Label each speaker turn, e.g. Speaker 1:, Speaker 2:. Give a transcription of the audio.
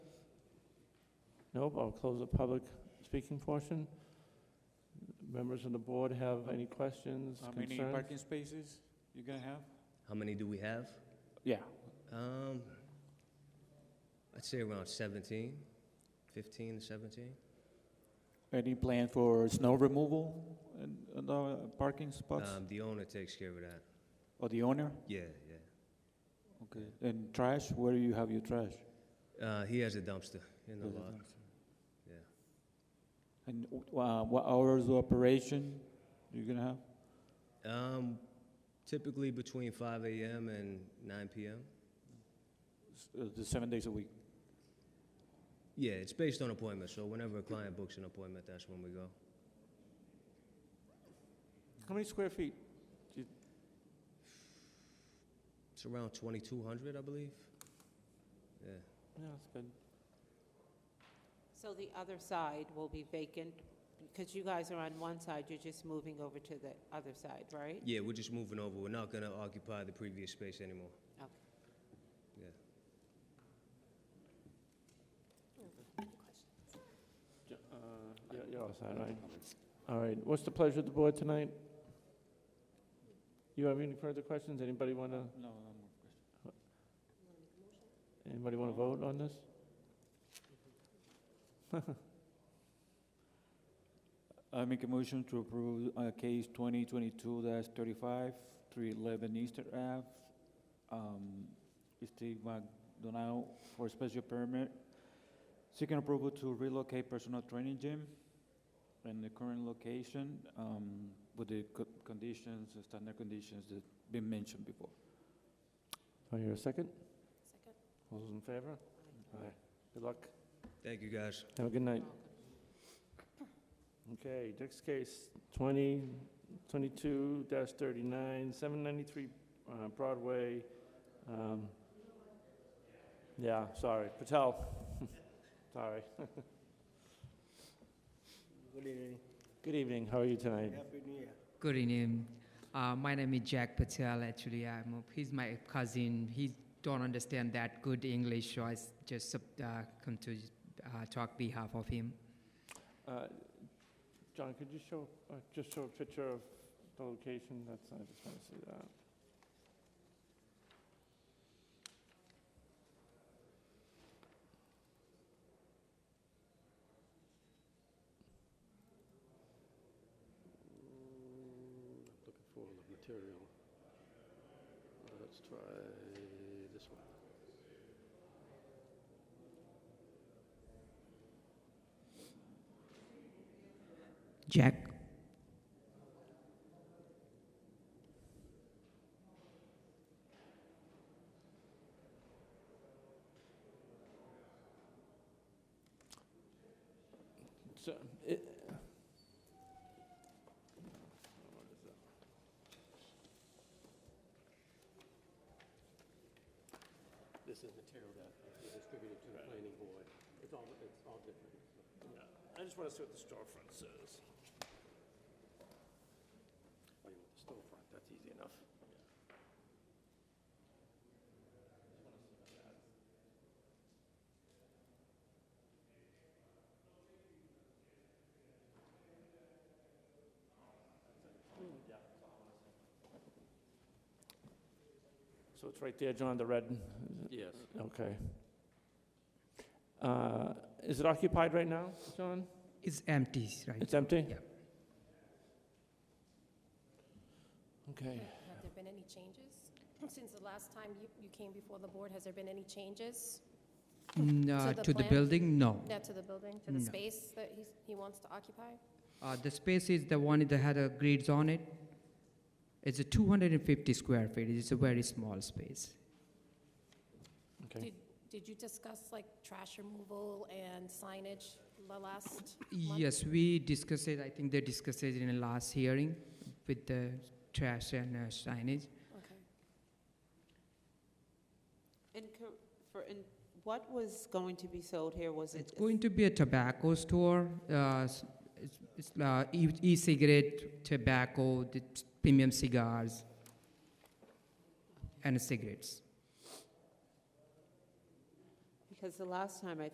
Speaker 1: Nope, I'll close the public speaking portion. Members of the board have any questions,
Speaker 2: How many
Speaker 1: concerns?
Speaker 2: parking spaces you gonna have?
Speaker 3: How many do we have?
Speaker 2: Yeah.
Speaker 3: Um, I'd say around 17, 15 to 17.
Speaker 2: Any plan for snow removal and, and uh, parking spots?
Speaker 3: Um, the owner takes care of that.
Speaker 2: Or the owner?
Speaker 3: Yeah, yeah.
Speaker 2: Okay. And trash, where you have your trash?
Speaker 3: Uh, he has a dumpster in the
Speaker 2: There's a
Speaker 3: lot.
Speaker 2: dumpster.
Speaker 3: Yeah.
Speaker 2: And uh, what hours of operation you gonna have?
Speaker 3: Um, typically between 5 a.m. and 9 p.m.
Speaker 2: S- uh, The seven days a week?
Speaker 3: Yeah, it's based on appointment. So whenever a client books an appointment, that's when we go.
Speaker 1: How many square feet?
Speaker 3: It's around 2,200, I believe. Yeah.
Speaker 1: Yeah, that's good.
Speaker 4: So the other side will be vacant, because you guys are on one side, you're just moving over to the other side, right?
Speaker 3: Yeah, we're just moving over. We're not going to occupy the previous space anymore.
Speaker 4: Okay.
Speaker 3: Yeah.
Speaker 1: Ju- uh, yeah, You're all set, right? All right, what's the pleasure of the board tonight? You have any further questions? Anybody want to,
Speaker 2: No, no
Speaker 1: anybody want to vote on this?
Speaker 2: I make a motion to approve uh, case twenty twenty-two dash thirty-five, three eleven Easter Ave. um, Steve McDonough for special permit, seeking approval to relocate personal training gym in the current location um, with the co- conditions, the standard conditions that been mentioned before.
Speaker 1: Do I hear a second? All those in favor? Aye. Good luck.
Speaker 3: Thank you, guys.
Speaker 1: Have a good night.
Speaker 4: Welcome.
Speaker 1: Okay, next case, 20, 22-39, 793 uh, Broadway. um, Yeah, sorry, Patel. Sorry.
Speaker 5: Good evening.
Speaker 1: Good evening, how are you tonight?
Speaker 5: Happy New Year.
Speaker 6: Good evening. Uh, my name is Jack Patel. Actually, I'm a, he's my cousin. He don't understand that good English, so I s- just uh, come to uh, talk behalf of him.
Speaker 1: Uh, John, could you show, uh, just show a picture of the location? That's, I just want to see that.
Speaker 5: Mm, Looking for the material. Uh, Let's try this one.
Speaker 6: Jack.
Speaker 1: So, it.
Speaker 5: This is material that we distributed to the planning board. It's all, it's all different.
Speaker 1: I just want to see what the storefront says.
Speaker 5: Oh, you want the storefront, that's easy enough.
Speaker 1: So it's right there, John, the red,
Speaker 5: Yes.
Speaker 1: okay. Uh, Is it occupied right now, John?
Speaker 6: It's empty, right?
Speaker 1: It's empty?
Speaker 6: Yeah.
Speaker 1: Okay.
Speaker 7: Have there been any changes? Since the last time you, you came before the board, has there been any changes?
Speaker 6: Mm,
Speaker 7: So
Speaker 6: uh,
Speaker 7: the
Speaker 6: to the
Speaker 7: plan-
Speaker 6: building, no.
Speaker 7: Yeah, to the building, to the
Speaker 6: No.
Speaker 7: space that he's, he wants to occupy?
Speaker 6: Uh, the space is the one that had a grids on it. It's a 250 square feet. It's a very small space.
Speaker 1: Okay.
Speaker 7: Did, did you discuss like trash removal and signage the last month?
Speaker 6: Yes, we discussed it. I think they discussed it in the last hearing with the trash and uh, signage.
Speaker 7: Okay.
Speaker 4: And co- for, and what was going to be sold here, was it?
Speaker 6: It's going to be a tobacco store. Uh, s- it's it's uh, e- e-cigarette, tobacco, the t- premium cigars, and cigarettes.
Speaker 4: Because the last time, I